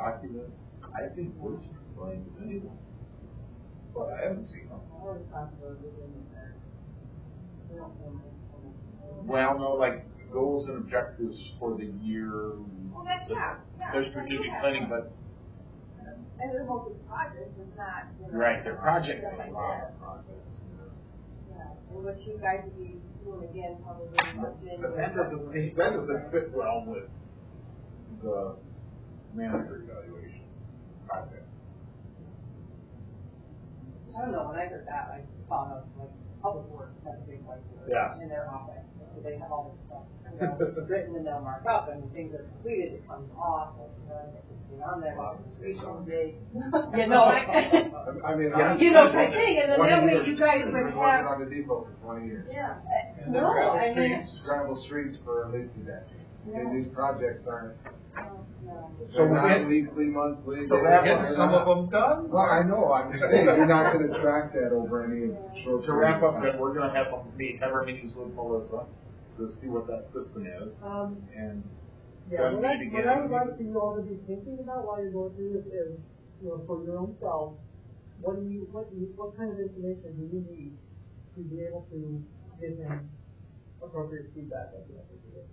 popular, I think we're playing with anyone. But I haven't seen them. Well, no, like goals and objectives for the year. Well, that's, yeah, yeah. Their strategic planning, but, And it's multiple projects, it's not, you know. right, their project stuff planning. like that. Yeah, and what you guys would be doing again, probably. in But that doesn't, fit- that doesn't fit well with the manager evaluation project. I don't know, when I heard that, I thought of like public works, that's a big white word. Yeah. In their office, so they have all this stuff, you know, written and they'll mark up, and things are completed, it comes off, and, you know, and it's been on there. Yeah, no, I, I- I mean, Yeah. I. you know, I think, and then that way you guys I've would been working have, on the depot for twenty years. Yeah. And no, they've got I mean, streets, gravel streets for at least a decade. And these projects aren't, So they're we not had- weekly, monthly. So they're we're not- getting they're some not- of them done? Well, I know, I'm just saying, you're not gonna track that over any short. To wrap up, period that we're gonna have a meet, have our meetings with Melissa to see what that system is Um, and Yeah, what I, Done what I again. would like for you all to be thinking about while you're going through this is, you know, for your own self, what do you, what do you, what kind of information do you need to be able to give him appropriate feedback at the end of the day?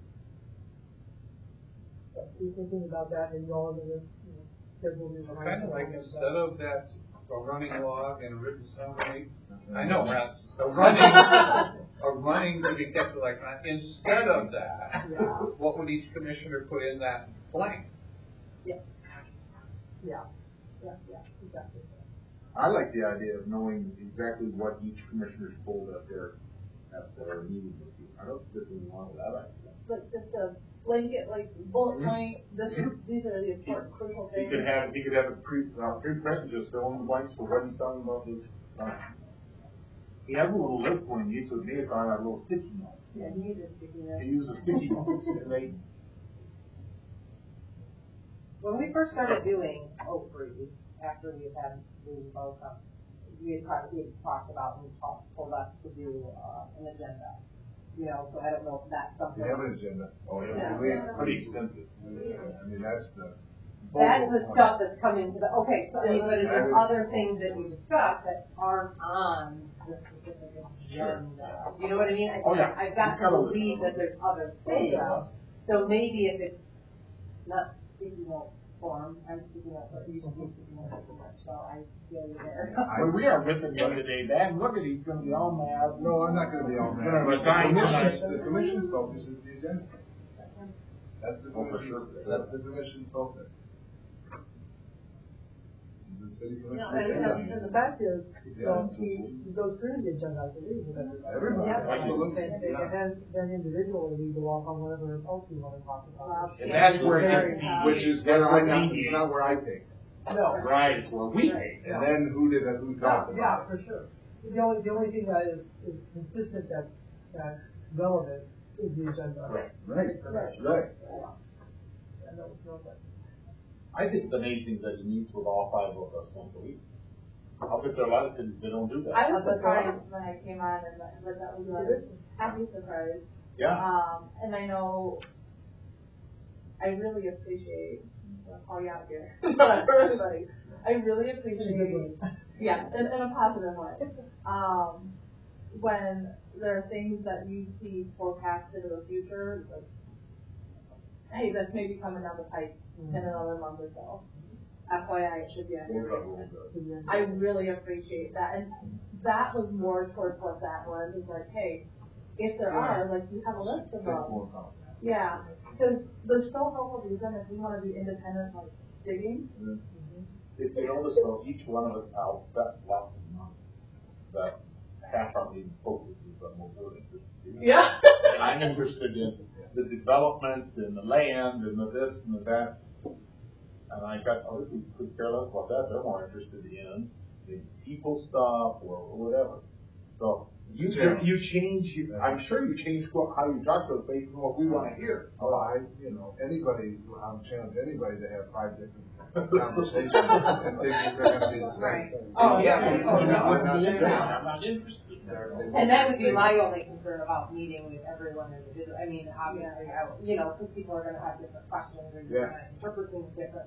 But Be thinking about that and you all are gonna, you know, schedule your. Kind of like instead of that, a running log and a written summary, I know, Mm-hmm. right, a running, a running to be kept like, that. instead of that, Yeah, what would each commissioner put in that blank? yeah, yeah, yeah, exactly. I like the idea of knowing exactly what each commissioner's pulled at their, at their meeting with you. I don't think there's any wrong with that idea. But just a blanket, like bullet Mm-hmm. point, this is, these are the important crucial He things. could have, he could have a pre, uh, pre-question just fill in the blanks for what he's talking about this. uh, He has a little list when he meets with me, it's on that little sticky note. yeah, he needs to do that. He uses sticky notes and they When we first started doing Oak Breeze, after we had had the vote up, we had talked, we had talked about, we talked, told us to do, uh, an agenda. You know, so I don't know if that's something. We have an agenda. Oh, Yeah. We- Pretty extensive. I mean, that's the. That's the stuff that's coming to the, okay, so then, but is there other things that we discussed that aren't on the specific agenda? You know what I mean? I- Oh, yeah. I've got It's to got a list. believe that there's other things, so maybe if it's not speaking of form, I'm speaking of what you should be speaking of so much, so I feel you there. But we are ripping him today, Dad, look at, oh, he's gonna be all mad. No, I'm not gonna be all mad. Gonna resign The tonight. commission's- The commission's focus is the agenda. That's the Oh, for sure. commission's, that's the commission's focus. The city And, and- commission. and the fact is, Yeah. so he, he goes through the agenda, I believe, with everybody. Everybody, Yeah. absolutely. And and then, then individually, we go off on whatever else we wanna talk about. And that's where it gets deep. Which is where I, got- it's Deviates. not where I think. No, Right, it's where we hate. And then who did, who talked Yeah, about for it? sure. The only, the only thing that is, is consistent that, that's relevant is the agenda. Right. Right, right. And that was not that- I think the main thing that he needs with all five of us once a week. I'll bet there are a lot of cities that don't do that. I was surprised when I came on and that, but that was good. Happy surprise. Yeah, Um, and I know, I really appreciate, I'll call you out here, but for everybody, I really appreciate, yeah, in, in a positive way. Um, when there are things that you see forecasted in the future, like, hey, that's maybe coming down the pipe in another month or so. FYI, it should be. on your Rules are rules, though. I really appreciate that, and that was more towards what that was, is like, hey, if there are, like, you have a list of them. Yeah, because they're so helpful to them if we want to be independent, like, digging. If you notice though, each one of us out, that lots of money, that half our meeting focuses on what we're interested in. Yeah. And I'm interested in the development and the land and the this and the that. And I got oh, other people who care less about that, they're more interested in the people stuff or whatever. So you, Yeah. you change, you- I'm sure you change what, how you talk to us based on what we wanna hear. Well, I, you know, anybody, I'm challenging anybody to have five different conversations and think that they're gonna be the same. Right. thing. Oh, yeah. I'm Oh, no, not saying that. I'm not interested. They're- they And that would be won't- my only concern about meeting with everyone individually, I mean, obviously, I, you know, because people are gonna have different questions, or you're Yeah. gonna interpret things differently.